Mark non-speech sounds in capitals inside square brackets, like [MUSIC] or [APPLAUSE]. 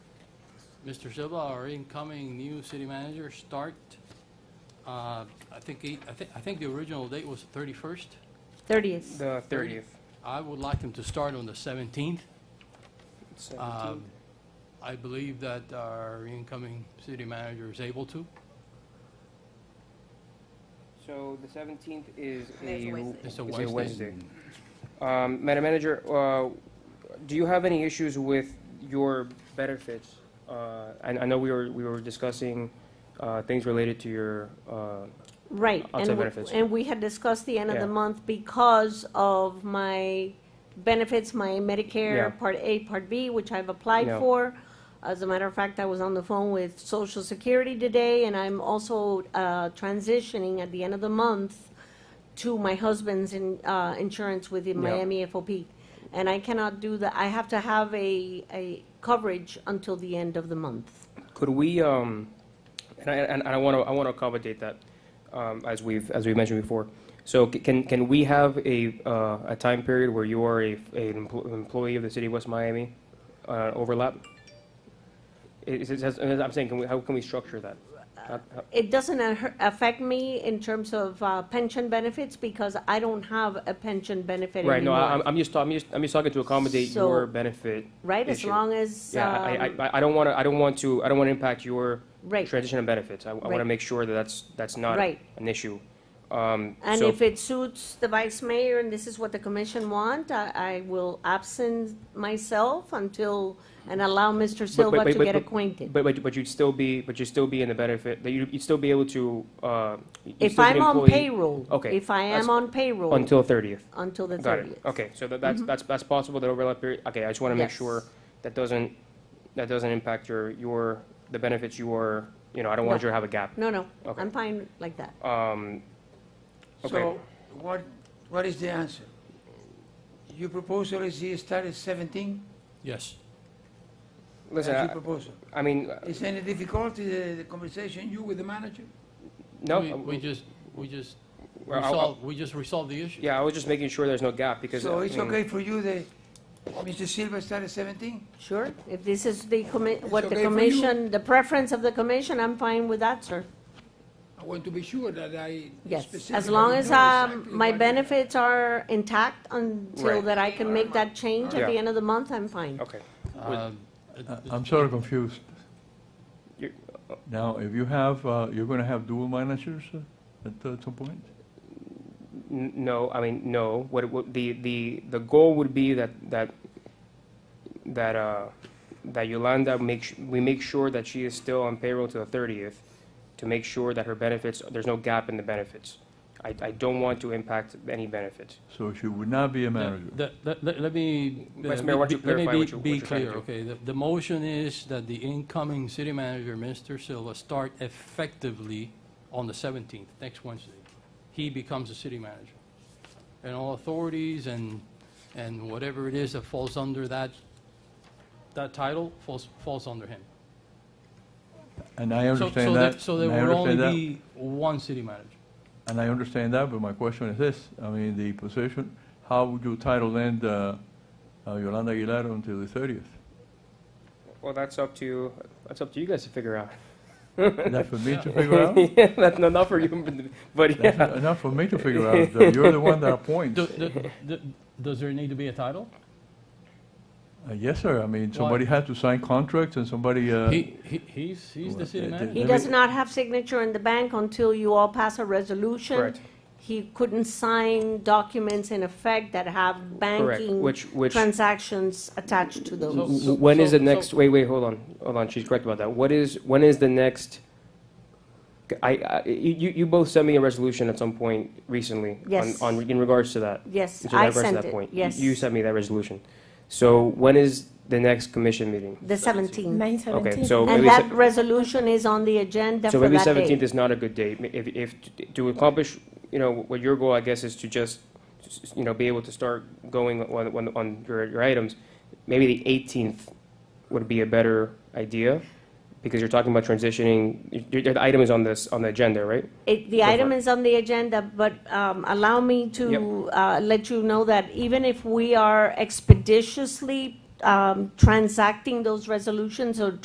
Mr. Silva, our incoming new city manager, start, uh, I think, he- I think, I think the original date was the 31st. 30th. The 30th. I would like him to start on the 17th. 17th. Um, I believe that our incoming city manager is able to. So the 17th is There's a a... Wednesday. It's a is Wednesday. Um, Madam Manager, uh, do you have any issues with your benefits? Uh, I I know we were, we were discussing uh, things related to your, uh, Right. Outside and we- benefits. And we had discussed the end of the Yeah. month because of my benefits, my Yeah. Medicare Part A, Part B, which I've applied Yeah. for. As a matter of fact, I was on the phone with Social Security today, and I'm also uh, transitioning at the end of the month to my husband's in, uh, insurance with the Yeah. Miami FOP. And I cannot do that. I have to have a, a coverage until the end of the month. Could we, um, and I, and I want to, I want to accommodate that, um, as we've, as we mentioned before. So c- can, can we have a, uh, a time period where you are a, an empl- employee of the city of West Miami, uh, overlap? Is, is, is- I'm saying, can we, how can we structure that? How- how- It doesn't a- affect me in terms of uh, pension benefits because I don't have a pension benefit Right, no, I- I'm, anymore. I'm just, I'm just, I'm just talking to accommodate So- your benefit. Right, as issue. long as, Yeah, I, I- um, I, I don't want to, I don't want to, I don't want to impact your right, transition and benefits. I, I want to Right. make sure that that's, that's not Right. an issue. Um, and so- if it suits the vice mayor and this is what the commission want, I, I will absent myself until, and allow Mr. Silva but- to but- get but- acquainted. But, but, but you'd still be, but you'd still be in the benefit, that you, you'd still be able to, uh. you'd If still be an I'm on employee payroll, Okay, if I that's- am on payroll, Until thirtieth. until the Got it. Oh. thirtieth. Mm-hmm. Okay, so that, that's, that's, that's possible, that overlap period? Okay, I just wanna make Yes. sure that doesn't, that doesn't impact your, your, the benefits you are, you know, I don't want No. you to have a gap. No, no, Okay. I'm fine like that. Um, okay, So what, what is the answer? Your proposal is he started 17? Yes. listen, That's I, your proposal. I mean, uh, Is any difficulty, the the conversation you with the manager? no. We- uh, We just, we just well, I- I- resolved, we just resolved the issue. Yeah, I was just making sure there's no gap because. So I it's mean, okay for you that Mr. Silva started 17? Sure, if this is the commi, what the okay for you. commission, the preference of the commission, I'm fine with that, sir. I want to be sure that I Yes, as specifically long as, know um, exactly my what- benefits are intact until Right. that I can make that change at the Yeah. end of the month, I'm fine. Okay, Um, I- Uh, I'm sort of confused. You- Now, if you have, uh, you're going to have dual managers uh, at uh, some point? N- no, I mean, no, what, it would the, the, the goal would be that, that, that, uh, that Yolanda makes, we make sure that she is still on payroll to the thirtieth to make sure that her benefits, there's no gap in the benefits. I, I don't want to impact any benefits. So she would not be a manager? Let- let- let- Let me, uh, Vice Mayor, why don't you be- let me clarify be- what you- what be you're trying to clear, do? okay? The- The motion is that the incoming city manager, Mr. Silva, start effectively on the 17th, next Wednesday. He becomes the city manager. And all authorities and, and whatever it is that falls under that, that title falls, falls under him. And So- I so understand there- that. So there and I will only understand be one city [LAUGHS] manager. that, And I understand that, but my question is this, I mean, the position, how would you title then uh, uh, Yolanda Aguilar until the 30th? Well, that's up to, that's up to you guys to figure [LAUGHS] out. That for me to Yeah. figure out? That's not not for you, but- but yeah. That's Not for me to figure out, Uh, you're the one [LAUGHS] that appoints. Do- do- do- Does there need to be a title? Uh, Yes, sir, I mean, Why? somebody had to sign contracts and somebody, uh, He, he- he's, he's the city Well, uh, manager. He Let does me- not have signature in the bank until you all pass a resolution. Correct. He couldn't sign documents in effect that have Correct, banking which, which. transactions attached to those. So- When is so- the next, so- wait, wait, hold on, hold on, she's correct about that. What is, when is the next, I, I, you, you both sent me a resolution at some point recently. on- Yes. On, in regards to that. Yes, in I regards to sent that it, point. You- yes. You sent me that resolution. So when is the next commission meeting? The seventeenth. Nine Okay, seventeen. so And maybe, se- that resolution is on the agenda so for maybe that seventeenth day. is not a good date. Ma- If, if, to accomplish, you know, what your goal, I guess, is to just, s- you know, be able to start going on, on, on your, your items, maybe the eighteenth would be a better idea, because you're talking about transitioning, your, your item is on this, on the agenda, right? It, the Go for item it. is on the agenda, but um, allow me to uh, let you know that even if we are expeditiously um, transacting those resolutions or